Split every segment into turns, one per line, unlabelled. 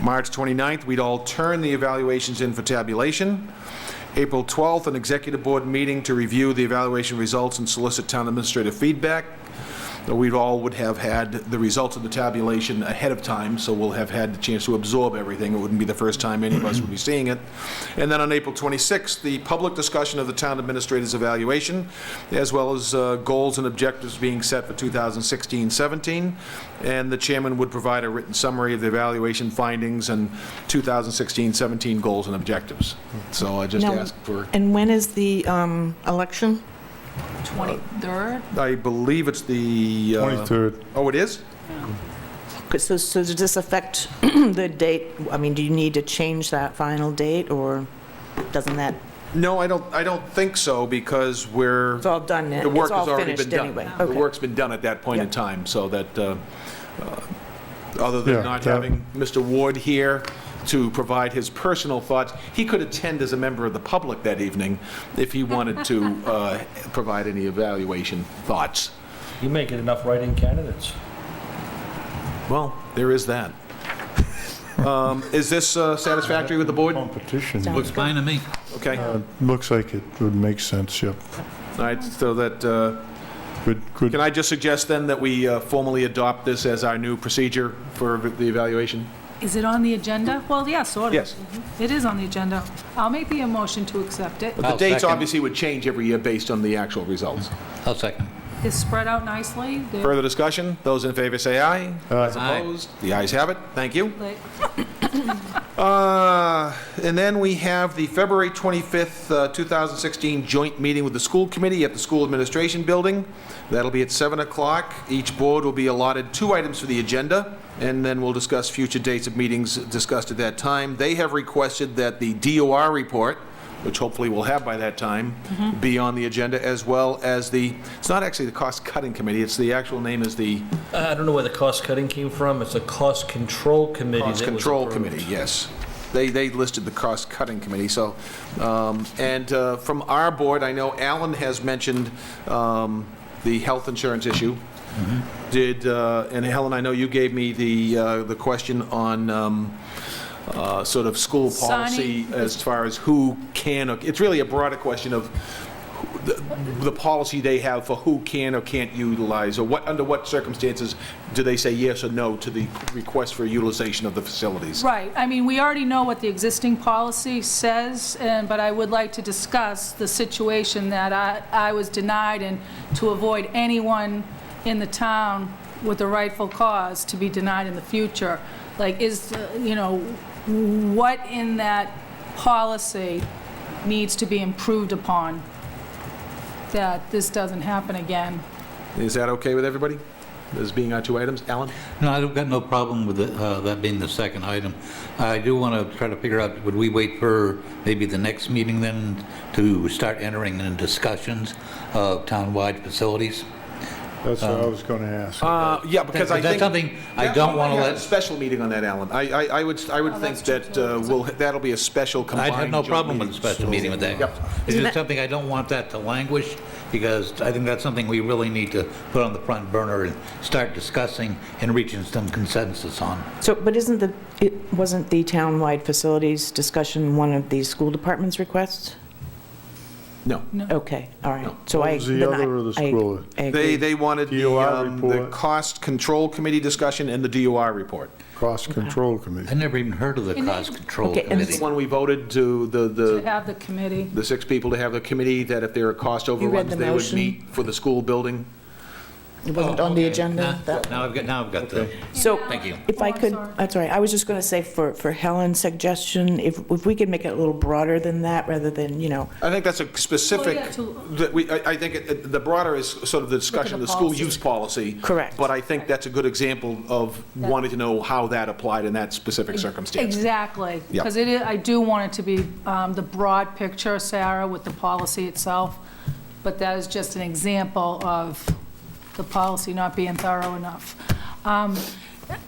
March 29th, we'd all turn the evaluations in for tabulation. April 12th, an executive board meeting to review the evaluation results and solicit town administrative feedback. We all would have had the results of the tabulation ahead of time, so we'll have had the chance to absorb everything. It wouldn't be the first time any of us would be seeing it. And then on April 26th, the public discussion of the town administrator's evaluation, as well as uh, goals and objectives being set for 2016-17. And the chairman would provide a written summary of the evaluation findings and 2016-17 goals and objectives. So I just
Now-
ask for,
And when is the um, election?
23rd?
I believe it's the... uh,
23rd.
Oh, it is?
'Cause So so does this affect the date? I mean, do you need to change that final date, or doesn't that,
No, I don't, I don't think so, because we're...
it's all done, now.
The work
it's all
has already been
finished
done.
anyway?
The
Okay.
work's been done at that point in
Yeah.
time, so that, uh, uh, other than
Yeah,
not
that-
having Mr. Ward here to provide his personal thoughts, he could attend as a member of the public that evening if he wanted to uh, provide any evaluation thoughts.
You make it enough write-in candidates.
Well, there is that. Um, Is this uh, satisfactory with the board?
Competition.
Sounds
Looks-
good.
Fine to me.
Okay, all
Um, uh, Looks like it would make sense, yep.
right, so that, uh,
Good, good.
can I just suggest then that we uh, formally adopt this as our new procedure for the evaluation?
Is it on the agenda? Well, yeah, sort of.
Yes.
It is on the agenda. I'll make the motion to accept it.
But
I'll
the dates
second.
obviously would change every year based on the actual results.
I'll second.
It's spread out nicely. They're
Further discussion? Those in favor say aye.
Aye.
Aye.
Opposed? The ayes have it. Thank you.
lit.
Uh, And then we have the February 25th, uh, 2016 joint meeting with the school committee at the school administration building. That'll be at 7 o'clock. Each board will be allotted two items for the agenda, and then we'll discuss future dates of meetings discussed at that time. They have requested that the DOR report, which hopefully we'll have by that time, be on the agenda, as well as the, it's not actually the cost-cutting committee, it's the actual name is the
I don't know where the cost cutting came from. It's a cost control committee
Cost
that was
Control
approved.
Committee, yes. They, they listed the cost-cutting committee, so, um, and uh, from our board, I know Alan has mentioned um, the health insurance issue. Did, uh, and Helen, I know you gave me the, uh, the question on um, uh, sort of school policy
Signing.
as far as who can, or- it's really a broader question of who- the the policy they have for who can or can't utilize, or what, under what circumstances do they say yes or no to the request for utilization of the facilities?
Right, I mean, we already know what the existing policy says, and, but I would like to discuss the situation that I, I was denied and to avoid anyone in the town with a rightful cause to be denied in the future. Like, is, uh, you know, what in that policy needs to be improved upon that this doesn't happen again?
Is that okay with everybody? As being our two items? Alan?
No, I've got no problem with it, uh, that being the second item. I do want to try to figure out, would we wait for maybe the next meeting then to start entering in discussions of townwide facilities?
That's what I was going to ask.
Uh, yeah, because I
That's
think.
something I
Yeah,
don't
we
wanna
might have
let-
a Special meeting on that, Alan. I, I, I would, I would
Oh,
think
that's true,
that
too.
uh, we'll, that'll be a special combined.
I'd have no
joint
problem with a
meeting.
special meeting with that.
Yep.
It's just something, I don't want that to languish, because I think that's something we really need to put on the front burner and start discussing and reaching some consensus on.
So, but isn't the, it wasn't the townwide facilities discussion one of the school department's requests?
No.
Okay, all right. So
What
I
was the
then I-
other of the
I-
school?
I
They,
agree.
they wanted the,
DOR
um, the
report.
cost control committee discussion and the DOR report.
Cost Control
I
Committee.
never even heard of the
And they-
cost control
Okay, and
committee.
The one we voted to, the,
To
the,
have the committee,
the six people to have the committee, that if there are cost overruns,
the
they would
motion?
meet for the school building.
It
Oh,
wasn't on the
Okay.
agenda?
Now-
that-
Now I've got, now I've got the,
So.
thank you.
If I
Oh, I'm
could,
sorry.
that's all right, I was just going to say for, for Helen's suggestion, if, if we could make it a little broader than that, rather than, you know,
I think that's a specific,
Well, yeah, to-
that we, I I think it- it- the broader is sort of the discussion of the school
policy.
use policy.
Correct.
But I think that's a good example of wanting to know how that applied in that specific circumstance.
Exactly.
Yeah.
Because it is, I do want it to be um, the broad picture, Sarah, with the policy itself, but that is just an example of the policy not being thorough enough. Um,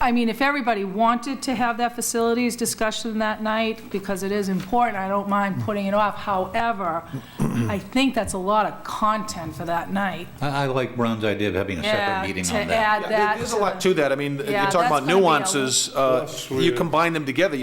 I mean, if everybody wanted to have that facilities discussion that night, because it is important, I don't mind putting it off. However, I think that's a lot of content for that night.
I I like Ron's idea of having a
Yeah,
separate meeting on that.
To add that.
There's a lot to that. I mean, you're
Yeah,
talking
that's
about
gonna be a-
nuances. uh,
Plus, we-
You combine them together,